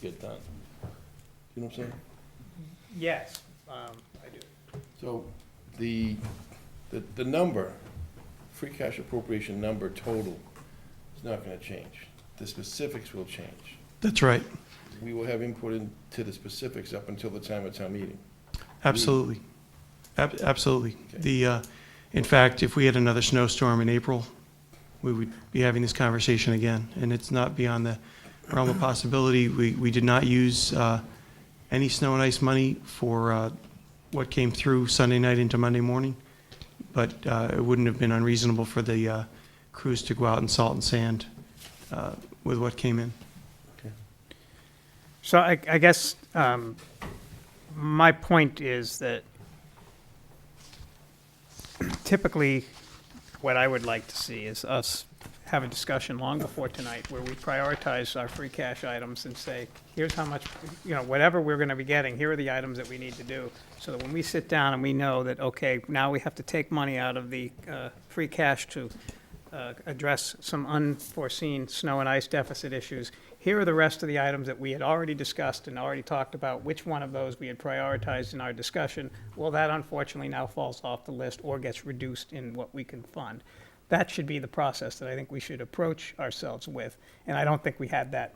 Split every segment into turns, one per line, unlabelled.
get done. You know what I'm saying?
Yes, um, I do.
So the, the, the number, free cash appropriation number total is not gonna change. The specifics will change.
That's right.
We will have input into the specifics up until the time of town meeting.
Absolutely. Ab- Absolutely.
Okay.
The, uh, in fact, if we had another snowstorm in April, we would be having this conversation again. And it's not beyond the realm of possibility. We, we did not use uh, any snow and ice money for uh, what came through Sunday night into Monday morning. But uh, it wouldn't have been unreasonable for the uh, crews to go out and salt and sand uh, with what came in.
So I, I guess, um, my point is that typically, what I would like to see is us have a discussion long before tonight where we prioritize our free cash items and say, here's how much, you know, whatever we're gonna be getting, here are the items that we need to do. So that when we sit down and we know that, okay, now we have to take money out of the, uh, free cash to, uh, address some unforeseen snow and ice deficit issues. Here are the rest of the items that we had already discussed and already talked about, which one of those we had prioritized in our discussion. Well, that unfortunately now falls off the list or gets reduced in what we can fund. That should be the process that I think we should approach ourselves with, and I don't think we had that.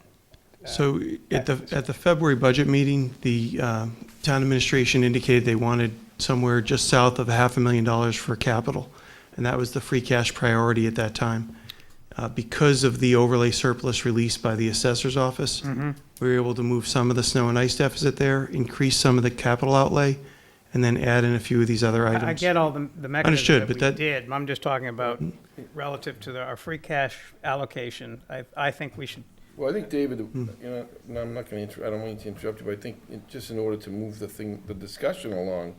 So at the,
that's-
at the February budget meeting, the uh, town administration indicated they wanted somewhere just south of a half a million dollars for capital. And that was the free cash priority at that time. Uh, Because of the overlay surplus released by the assessor's office,
Mm-hmm.
we were able to move some of the snow and ice deficit there, increase some of the capital outlay, and then add in a few of these other
I-
items.
I get all the, the
Understood,
mechanisms that
but
we
that- Mm-hmm.
did, I'm just talking about relative to the- our free cash allocation. I, I think we should
Well, I think, David, you know, no, I'm not gonna inter, I don't mean to interrupt you, but I think, in- just in order to move the thing, the discussion along,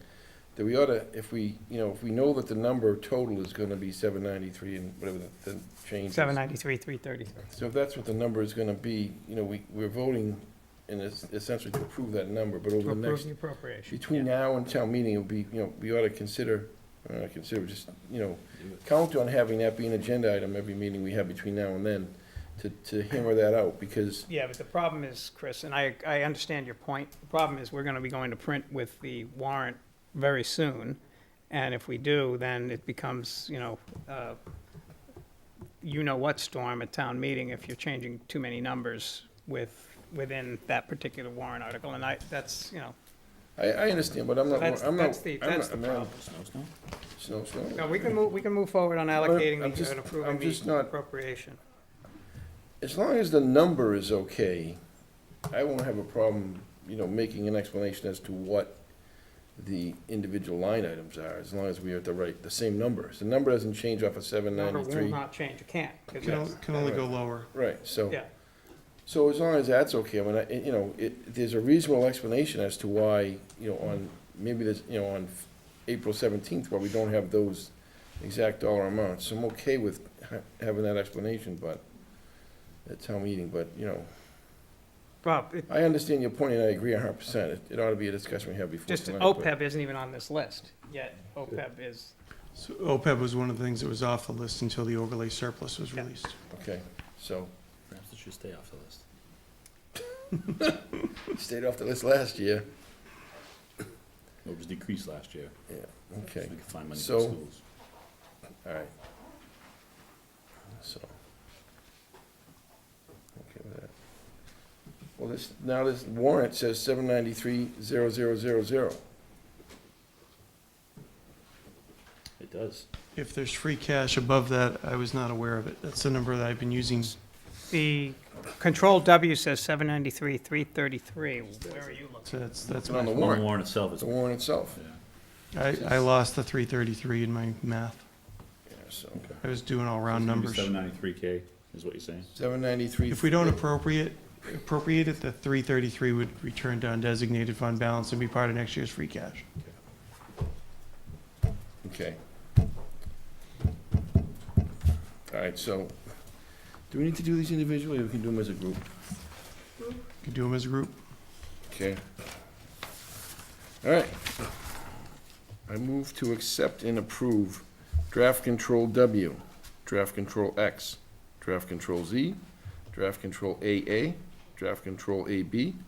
that we ought to, if we, you know, if we know that the number total is gonna be seven ninety-three and whatever the, the change is.
793, 333.
So if that's what the number is gonna be, you know, we, we're voting in es- essentially to approve that number, but
To
over the
approve
next,
the appropriation.
between now and town meeting, it'll be, you know, we ought to consider, or not consider, just, you know, count on having that be an agenda item every meeting we have between now and then, to, to hammer that out, because
Yeah, but the problem is, Chris, and I, I understand your point, the problem is we're gonna be going to print with the warrant very soon. And if we do, then it becomes, you know, uh, you know what storm at town meeting if you're changing too many numbers with, within that particular warrant article. And I, that's, you know,
I, I understand, but I'm not,
that's,
I'm not.
that's the,
I'm not-
that's the
I'm not-
problem.
Snow, snow.
No, we can move, we can move forward on allocating
I'm
the-
just-
and
I'm
approving
just
the
not-
appropriation.
As long as the number is okay, I won't have a problem, you know, making an explanation as to what the individual line items are, as long as we are at the right, the same numbers. The number doesn't change off of seven
Number will
ninety-three.
not change, it can't. 'cause
Can
that's-
o- Can only go lower.
Right, so,
Yeah.
so as long as that's okay, I mean, I, it- you know, it, there's a reasonable explanation as to why, you know, on, maybe there's, you know, on April seventeenth, why we don't have those exact dollar amounts. So I'm okay with ha- having that explanation, but, at town meeting, but, you know,
Bob, it-
I understand your point, and I agree a hundred percent. It- It ought to be a discussion we have before
Just
tonight. but-
OPEB isn't even on this list, yet OPEB is,
So OPEB was one of the things that was off the list until the overlay surplus was
Yeah.
released.
Okay, so,
Perhaps it should stay off the list.
stayed off the list last year.
It was decreased last year, so we
Okay,
could find money for
So-
schools.
all right. So. Okay with that. Well, this, now this warrant says seven ninety-three zero zero zero zero.
It does.
If there's free cash above that, I was not aware of it. That's the number that I've been using.
the Control W says 793, 333. Where are you looking?
So that's, that's
It's on
my,
the
The
warrant,
warrant itself is,
the warrant itself.
yeah.
I, I lost the three thirty-three in my math.
Yeah, so,
I was doing all round numbers.
Seven ninety-three K is what you're saying?
seven ninety-three.
If we don't appropriate, appropriate it, the three thirty-three would return to undesignated fund balance and be part of next year's free cash.
Okay. All right, so, do we need to do these individually, or we can do them as a group?
Could do them as a group.
Okay. All right. I move to accept and approve draft control W, draft control X, draft control Z, draft control AA, draft control A B.